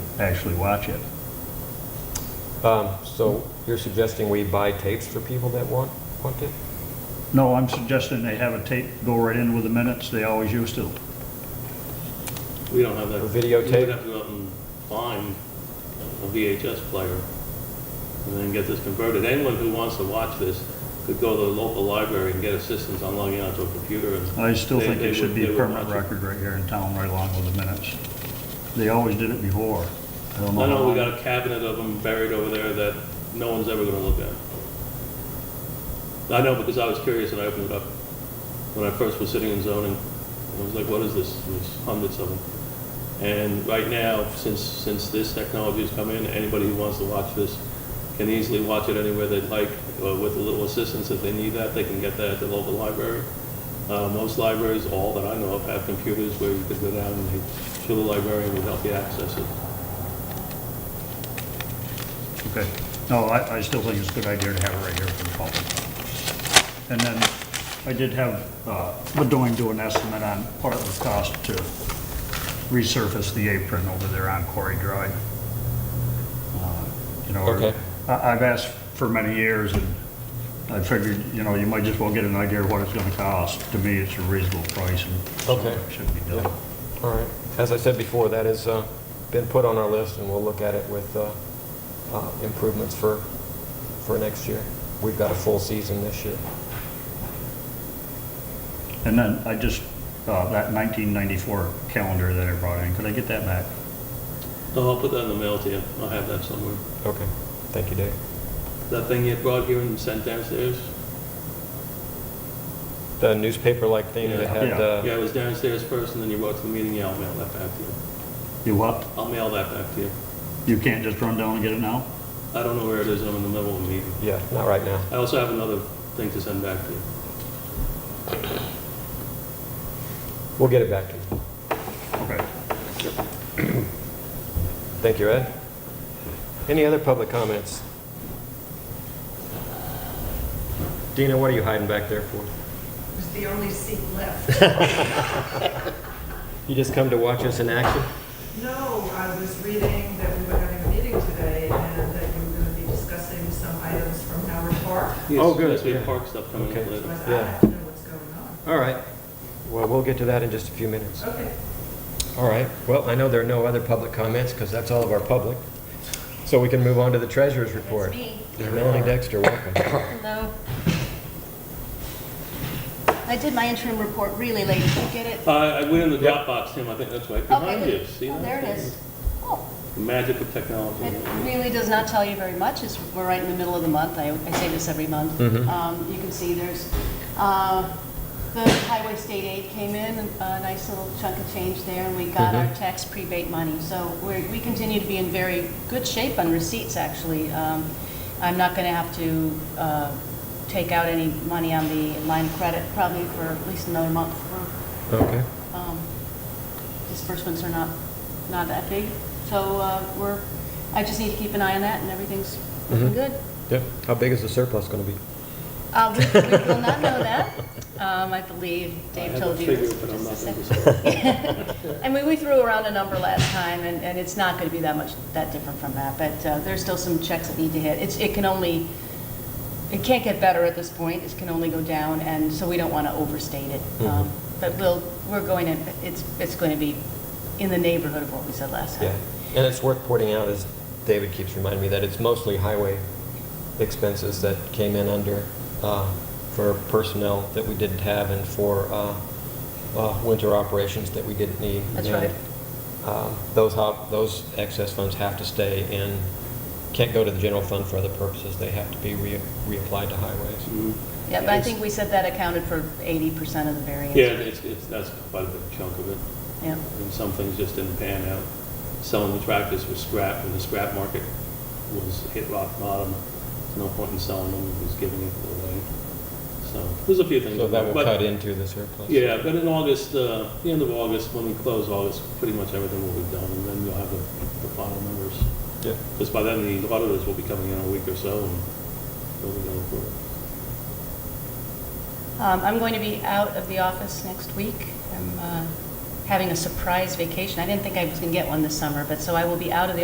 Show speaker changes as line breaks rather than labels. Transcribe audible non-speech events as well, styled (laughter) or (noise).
actually watch it.
Um, So you're suggesting we buy tapes for people that want, want it?
No, I'm suggesting they have a tape, go right in with the minutes, they always used to.
We don't have that.
Or videotape?
We would have to go out and find a VHS player and then get this converted. Anyone who wants to watch this could go to the local library and get assistance on logging onto a computer and.
I still
they-
think
they
it should
would-
be
they
a
would
permanent
watch it.
record right here in town, right along with the minutes. They always did it before. I don't know.
I know
how
we
long.
got a cabinet of them buried over there that no one's ever gonna look at. I know because I was curious and I opened it up when I first was sitting in zoning. I was like, what is this? There's hundreds of them. And right now, since, since this technology has come in, anybody who wants to watch this can easily watch it anywhere they'd like uh, with a little assistance. If they need that, they can get that at the local library. Uh, Most libraries, all that I know of, have computers where you could go down and they- to the librarian would help you access it.
Okay. No, I, I still think it's a good idea to have it right here for the public. And then I did have, uh, Bedoin do an estimate on part of the cost to resurface the apron over there on Quarry Drive. Uh, You know,
Okay.
I, I've asked for many years and I figured, you know, you might just well get an idea of what it's gonna cost. To me, it's a reasonable price and
Okay.
something that should be done.
All right. As I said before, that has uh, been put on our list, and we'll look at it with uh, uh, improvements for, for next year. We've got a full season this year.
And then I just, uh, that 1994 calendar that I brought in, could I get that back?
No, Oh, I'll put that in the mail to you. I'll have that somewhere.
Okay. Thank you, Dave.
That thing you brought here and sent downstairs?
The newspaper-like thing that
Yeah.
had, uh,
Yeah, it was downstairs first, and then you brought to the meeting, yeah, I'll mail that back to you.
You what?
I'll mail that back to you.
You can't just run down and get it now?
I don't know where it is, I'm in the middle of a meeting.
yeah, not right now.
I also have another thing to send back to you.
We'll get it back to you.
Okay.
Thank you, Ed. Any other public comments? Dina, what are you hiding back there for?
was the only seat left. (laughs)
You just come to watch us in action?
No, I was reading that we were having a meeting today and that you were going to be discussing some items from Howard Park.
Oh, good,
Yes, we
yeah.
have park stuff coming
Okay.
up
So I
later.
said, I have to know what's going on.
All right. Well, we'll get to that in just a few minutes.
Okay.
All right. Well, I know there are no other public comments because that's all of our public. So we can move on to the treasurer's report.
That's me.
Melanie Dexter, welcome.
Hello. I did my interim report really late. Did you get it?
Uh, I went in the
Yep.
Dropbox, Tim, I think that's right
Okay,
behind
good.
you, see
Oh,
that?
there it is. Oh,
The Magic of
it
technology.
really does not tell you very much. It's, we're right in the middle of the month. I, I say this every month.
Mhm.
Um, you can see there's, uh, the highway state aid came in, a nice little chunk of change there, and we got our tax prebate money. So we're, we continue to be in very good shape on receipts, actually. Um, I'm not gonna have to, uh, take out any money on the line of credit probably for at least another month.
Okay.
Um, Disbursements are not, not that big, so uh, we're, I just need to keep an eye on that, and everything's looking
Mhm.
good.
Yeah. How big is the surplus going to be?
Uh, We we will not know that, Um, I believe Dave told you
I have a
this
figure, but I'm
just a
not
second.
going to say.
(laughs) I mean, we threw around a number last time, and, and it's not going to be that much, that different from that, but uh, there's still some checks that need to hit. It's, it can only, it can't get better at this point, it can only go down, and so we don't want to overstate it. Um,
Mhm.
But we'll, we're going to, it's, it's going to be in the neighborhood of what we said last
Yeah.
time.
And it's worth pointing out, as David keeps reminding me, that it's mostly highway expenses that came in under, uh, for personnel that we didn't have and for uh, uh, winter operations that we didn't need.
That's
And,
right.
um, Those, hop- those excess funds have to stay in, can't go to the general fund for other purposes. They have to be re- reapplied to highways.
Mm.
Yeah, but I think we said that accounted for 80% of the variance.
Yeah, it's, it's, that's quite a big chunk of it.
Yeah.
and some things just didn't pan out. Selling the tractors was scrap, and the scrap market was hit rock bottom. There's no point in selling them, it was giving it away. So, there's a few things.
So that will
But-
cut into the surplus.
Yeah, but in August, uh, the end of August, when we close August, pretty much everything will be done, and then you'll have the, the final numbers.
Yeah.
Because by then, the auditors will be coming in a week or so, and they'll be going through it.
Um, I'm going to be out of the office next week. I'm uh, having a surprise vacation. I didn't think I was going to get one this summer, but so I will be out of the